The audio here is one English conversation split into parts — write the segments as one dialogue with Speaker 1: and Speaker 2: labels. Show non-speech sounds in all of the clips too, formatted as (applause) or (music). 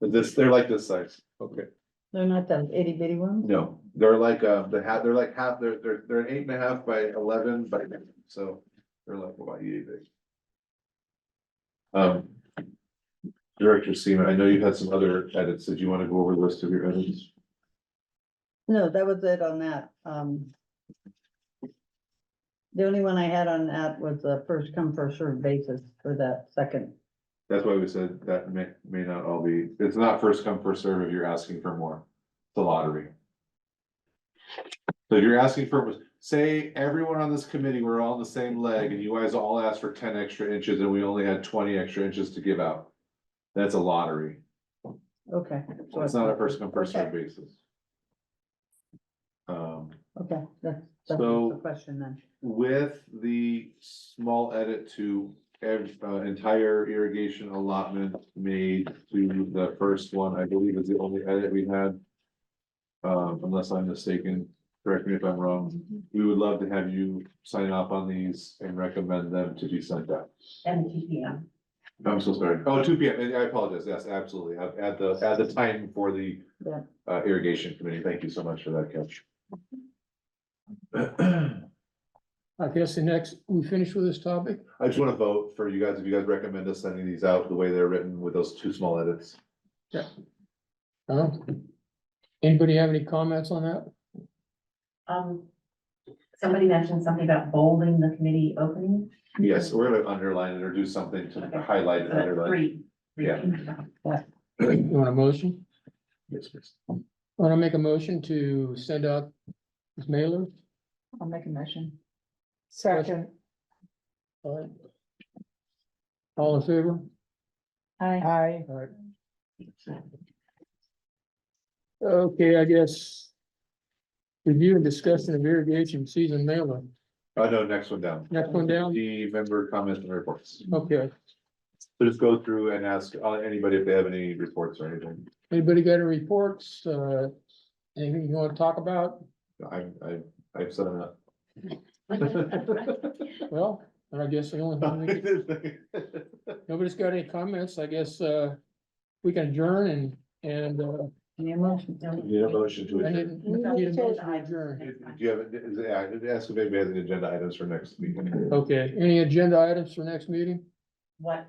Speaker 1: This, they're like this size. Okay.
Speaker 2: They're not the itty bitty ones?
Speaker 1: No, they're like, uh, the half, they're like half, they're, they're, they're eight and a half by eleven by, so they're like about eight big. Um. Director Seaman, I know you had some other edits. Did you want to go over the list of your edits?
Speaker 2: No, that was it on that, um. The only one I had on that was the first come, first served basis for that second.
Speaker 1: That's why we said that may, may not all be, it's not first come, first serve if you're asking for more. It's a lottery. So if you're asking for, say, everyone on this committee, we're all on the same leg and you guys all asked for ten extra inches and we only had twenty extra inches to give out. That's a lottery.
Speaker 2: Okay.
Speaker 1: So it's not a first come, first served basis. Um,
Speaker 2: Okay, that's, that's
Speaker 1: So-
Speaker 2: the question then.
Speaker 1: with the small edit to ev- uh, entire irrigation allotment made to the first one, I believe is the only edit we had. Um, unless I'm mistaken, correct me if I'm wrong, we would love to have you sign off on these and recommend them to be sent out.
Speaker 3: and two P M.
Speaker 1: I'm so sorry. Oh, two P M, I apologize, yes, absolutely, at at the, at the time for the
Speaker 2: Yeah.
Speaker 1: uh, irrigation committee, thank you so much for that catch.
Speaker 4: I guess the next, we finish with this topic?
Speaker 1: I just wanna vote for you guys, if you guys recommend us sending these out the way they're written with those two small edits.
Speaker 4: Huh? Anybody have any comments on that?
Speaker 3: Um, somebody mentioned something about bolding the committee opening.
Speaker 1: Yes, we're gonna underline it or do something to highlight and
Speaker 3: Uh,
Speaker 1: underline. (laughs)
Speaker 3: Three. (laughs) three
Speaker 1: Yeah.
Speaker 3: things.
Speaker 4: You want a motion?
Speaker 1: Yes, please.
Speaker 4: I Want to make a motion to send out this mailer?
Speaker 5: I'll make a motion.
Speaker 4: Second. All right. All in favor?
Speaker 2: Hi,
Speaker 5: Aye.
Speaker 4: All right. Okay, I guess. Review and discussion of irrigation season mailer.
Speaker 1: Oh, no, next one down.
Speaker 4: Next one down?
Speaker 1: The member comments and reports.
Speaker 4: Okay.
Speaker 1: So just go through and ask uh, anybody if they have any reports or anything.
Speaker 4: Anybody got any reports? Uh, anything you want to talk about?
Speaker 1: I, I, I've said (laughs) enough.
Speaker 4: Well, I guess the only thing we could Nobody's got any comments, I guess, uh, we can adjourn and, and, uh,
Speaker 2: any emotion?
Speaker 1: Need a motion to
Speaker 4: I
Speaker 1: adjourn.
Speaker 4: didn't, need a motion to adjourn.
Speaker 1: Do you have, is, it- I- ask if anybody has any agenda items for next meeting?
Speaker 4: Okay, any agenda items for next meeting?
Speaker 3: What,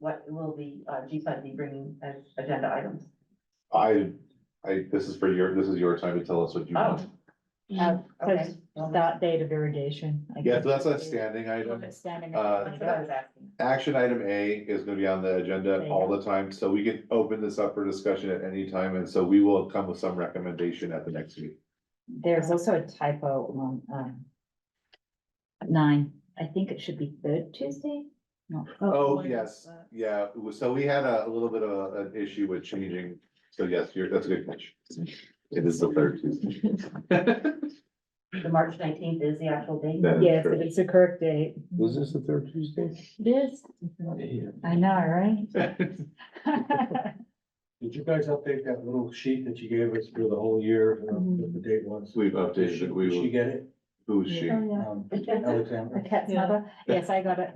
Speaker 3: what will the uh, G side be bringing as agenda items?
Speaker 1: I, I, this is for your, this is your time to tell us what you
Speaker 3: Oh.
Speaker 1: want.
Speaker 5: Mm-hmm.
Speaker 3: Okay.
Speaker 5: Start date of irrigation. I
Speaker 1: Yeah,
Speaker 5: guess.
Speaker 1: so that's a standing item.
Speaker 5: Standing.
Speaker 1: Uh,
Speaker 3: That's what I was asking.
Speaker 1: Action item A is gonna be on the agenda all the time, so we can open this up for discussion at any time, and so we will come with some recommendation at the next meeting.
Speaker 5: There's also a typo on, um. Nine, I think it should be third Tuesday?
Speaker 1: Oh, yes, yeah, it was- so we had a a little bit of a- an issue with changing, so yes, you're, that's a good catch. It is the third Tuesday.
Speaker 3: The March nineteenth is the actual date.
Speaker 1: That is
Speaker 5: Yes,
Speaker 1: correct.
Speaker 5: but it's the correct date.
Speaker 4: Was this the third Tuesday?
Speaker 5: It is, I know, right?
Speaker 6: Did you guys update that little sheet that you gave us for the whole year, uh, what the date was?
Speaker 1: We've updated it, we
Speaker 6: Did she
Speaker 1: will,
Speaker 6: get it?
Speaker 1: who's she?
Speaker 6: Um, Alexandra?
Speaker 5: The cat's
Speaker 2: Yeah.
Speaker 5: mother, yes, I got it.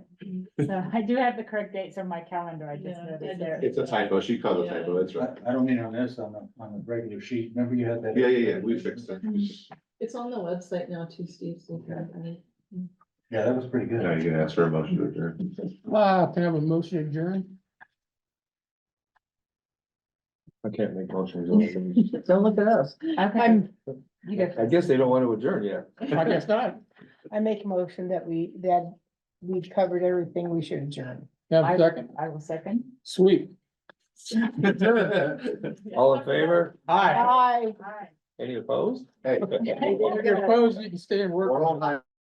Speaker 5: So I do have the correct dates on my calendar, I just
Speaker 2: Yeah.
Speaker 5: noticed there.
Speaker 1: It's a typo, she called a typo, that's right.
Speaker 6: I, I don't mean on this, on the, on the regular sheet, remember you had that?
Speaker 1: Yeah, yeah, yeah, we fixed it.
Speaker 7: It's on the website now too, Steve. so you can- I mean,
Speaker 6: Yeah, that was pretty good.
Speaker 1: Now you can ask for a motion to adjourn.
Speaker 4: Ah, can I have a motion to adjourn?
Speaker 8: I can't make motions.
Speaker 2: Don't look at us.
Speaker 5: Okay.
Speaker 9: I'm,
Speaker 5: You go
Speaker 8: I
Speaker 5: first.
Speaker 8: guess they don't want to adjourn yet.
Speaker 4: I guess not.
Speaker 9: I make a motion that we, that we've covered everything we should adjourn.
Speaker 4: Have a
Speaker 5: I-
Speaker 4: second?
Speaker 5: I will second.
Speaker 4: Sweet.
Speaker 8: All in favor?
Speaker 4: Aye.
Speaker 9: Aye.
Speaker 8: Any opposed?
Speaker 1: Hey.
Speaker 4: If you're opposed, you can stay and work.
Speaker 1: (laughs) We're all high